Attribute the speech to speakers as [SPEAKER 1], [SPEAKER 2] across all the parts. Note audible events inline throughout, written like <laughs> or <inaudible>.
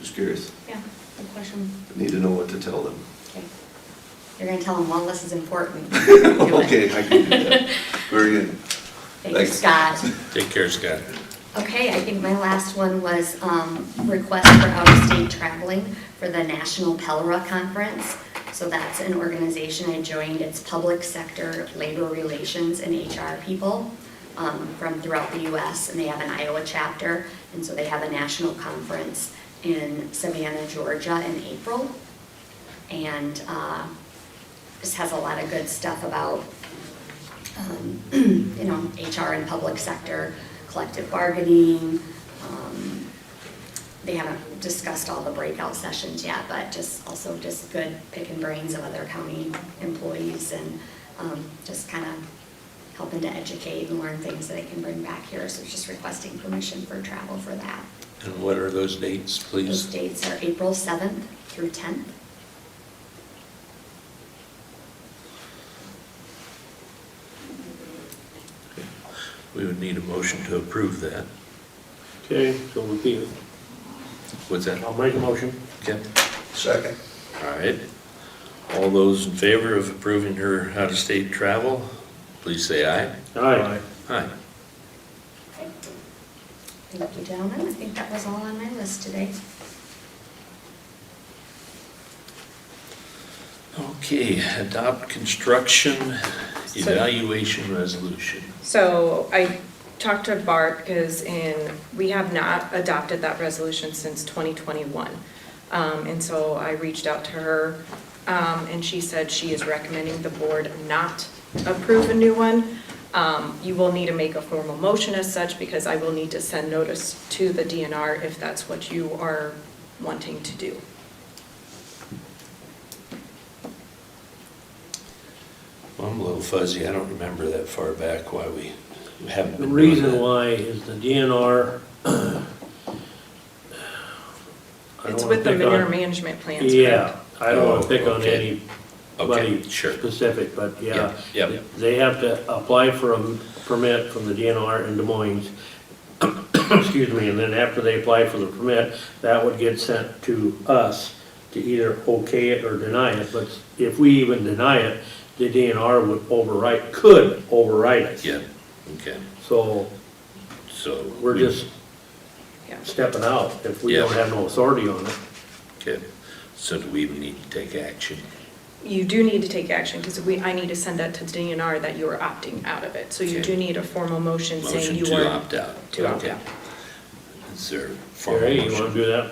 [SPEAKER 1] Just curious.
[SPEAKER 2] Yeah, good question.
[SPEAKER 1] Need to know what to tell them.
[SPEAKER 2] Okay.
[SPEAKER 3] You're gonna tell them one less
[SPEAKER 1] <laughs>
[SPEAKER 3] is important. Do it.
[SPEAKER 1] Okay, I can do that. Very good.
[SPEAKER 3] Thank you, Scott.
[SPEAKER 1] <laughs>
[SPEAKER 4] Take care, Scott.
[SPEAKER 3] Okay, I think my last one was um, request for out-of-state traveling for the National Pelra Conference. So that's an organization I joined, it's public sector labor relations and HR people um, from throughout the US, and they have an Iowa chapter, and so they have a national conference in Savannah, Georgia in April. And uh, this has a lot of good stuff about um, <clears throat> you know, HR and public sector, collective bargaining. um, They haven't discussed all the breakout sessions yet, but just also just good picking brains of other county employees and um, just kind of helping to educate and learn things that they can bring back here. So just requesting permission for travel for that.
[SPEAKER 4] And what are those dates,
[SPEAKER 3] Those
[SPEAKER 4] please?
[SPEAKER 3] dates are April 7th through 10th.
[SPEAKER 4] We would need a motion to approve that.
[SPEAKER 5] Okay, so repeat it.
[SPEAKER 4] What's that?
[SPEAKER 5] I'll make a motion.
[SPEAKER 4] Okay.
[SPEAKER 1] Second.
[SPEAKER 4] All right. All those in favor of approving her out-of-state travel, please say aye.
[SPEAKER 5] Aye.
[SPEAKER 4] Aye.
[SPEAKER 3] Thank you, gentlemen. I think that was all on my list today.
[SPEAKER 4] Okay, adopt construction evaluation resolution.
[SPEAKER 6] So I talked to Bart because in, we have not adopted that resolution since 2021. Um, And so I reached out to her um, and she said she is recommending the board not approve a new one. Um, You will need to make a formal motion as such because I will need to send notice to the DNR if that's what you are wanting to do.
[SPEAKER 4] Well, I'm a little fuzzy. I don't remember that far back why we haven't
[SPEAKER 5] The
[SPEAKER 4] been doing
[SPEAKER 5] reason
[SPEAKER 4] that.
[SPEAKER 5] why is the <clears throat> DNR. I don't
[SPEAKER 6] It's
[SPEAKER 5] wanna
[SPEAKER 6] with the
[SPEAKER 5] pick on-
[SPEAKER 6] manure management plans, correct?
[SPEAKER 5] Yeah, I don't want
[SPEAKER 4] Oh,
[SPEAKER 5] to pick on
[SPEAKER 4] okay. Okay,
[SPEAKER 5] anybody
[SPEAKER 4] sure.
[SPEAKER 5] specific, but yeah.
[SPEAKER 4] Yeah, yeah.
[SPEAKER 5] They have to apply for a permit from the DNR in Des Moines. <coughs> Excuse me, and then after they apply for the permit, that would get sent to us to either okay it or deny it. But if we even deny it, the DNR would override, could override it.
[SPEAKER 4] Yeah, okay,
[SPEAKER 5] So
[SPEAKER 4] so.
[SPEAKER 5] we're
[SPEAKER 4] we-
[SPEAKER 5] just
[SPEAKER 6] Yeah.
[SPEAKER 5] stepping out if we
[SPEAKER 4] Yeah.
[SPEAKER 5] don't have no authority on it.
[SPEAKER 4] Okay, so do we even need to take action?
[SPEAKER 6] You do need to take action because we, I need to send that to DNR that you are opting out of it. So you
[SPEAKER 4] Okay.
[SPEAKER 6] do need a formal motion saying
[SPEAKER 4] Motion
[SPEAKER 6] you
[SPEAKER 4] to
[SPEAKER 6] are.
[SPEAKER 4] opt out.
[SPEAKER 6] to opt
[SPEAKER 4] Okay.
[SPEAKER 6] out.
[SPEAKER 4] Is there a formal
[SPEAKER 5] Gary, you wanna
[SPEAKER 4] motion?
[SPEAKER 5] do that?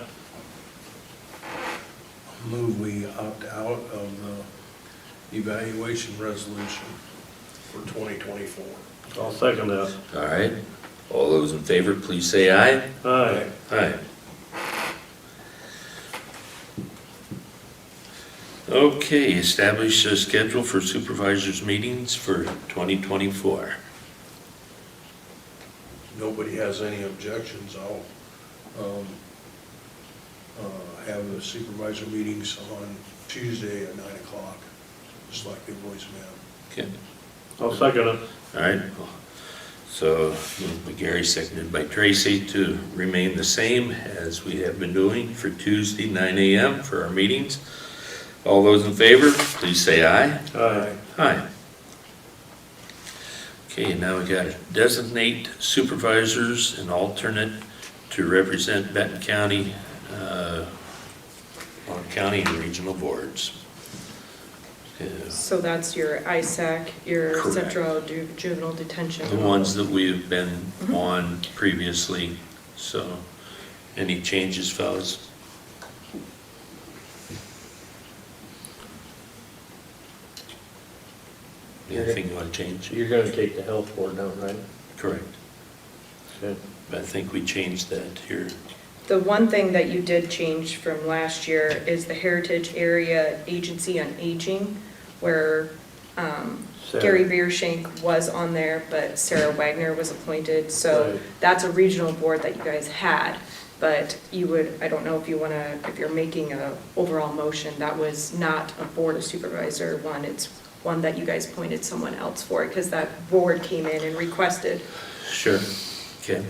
[SPEAKER 7] Move we opt out of the evaluation resolution for 2024.
[SPEAKER 5] I'll second that.
[SPEAKER 4] All right, all those in favor, please say aye.
[SPEAKER 5] Aye.
[SPEAKER 4] Aye. Okay, establish a schedule for supervisors' meetings for 2024.
[SPEAKER 7] Nobody has any objections, I'll um, uh, have the supervisor meetings on Tuesday at 9 o'clock, just like they've always been.
[SPEAKER 4] Okay,
[SPEAKER 5] I'll second it.
[SPEAKER 4] all right. So moved by Gary, seconded by Tracy to remain the same as we have been doing for Tuesday, 9 AM for our meetings. All those in favor, please say aye.
[SPEAKER 5] Aye.
[SPEAKER 4] Hi. Okay, now we got designate supervisors and alternate to represent Benton County uh, on county and regional boards. Uh,
[SPEAKER 6] So that's your ISAC, your
[SPEAKER 4] Correct.
[SPEAKER 6] central ju- juvenile detention.
[SPEAKER 4] The ones that we've been on previously, so any changes, fellas? Anything you want to change?
[SPEAKER 5] You're gonna take the health board down, right?
[SPEAKER 4] Correct.
[SPEAKER 5] Okay.
[SPEAKER 4] I think we changed that here.
[SPEAKER 6] The one thing that you did change from last year is the Heritage Area Agency on Aging, where um,
[SPEAKER 5] Sarah.
[SPEAKER 6] Gary Beershank was on there, but Sarah Wagner was appointed. So
[SPEAKER 5] Right.
[SPEAKER 6] that's a regional board that you guys had, but you would, I don't know if you want to, if you're making a overall motion, that was not a board of supervisor one, it's one that you guys appointed someone else for, because that board came in and requested.
[SPEAKER 4] Sure. Okay.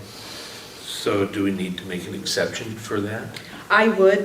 [SPEAKER 4] So do we need to make an exception for that?
[SPEAKER 6] I would,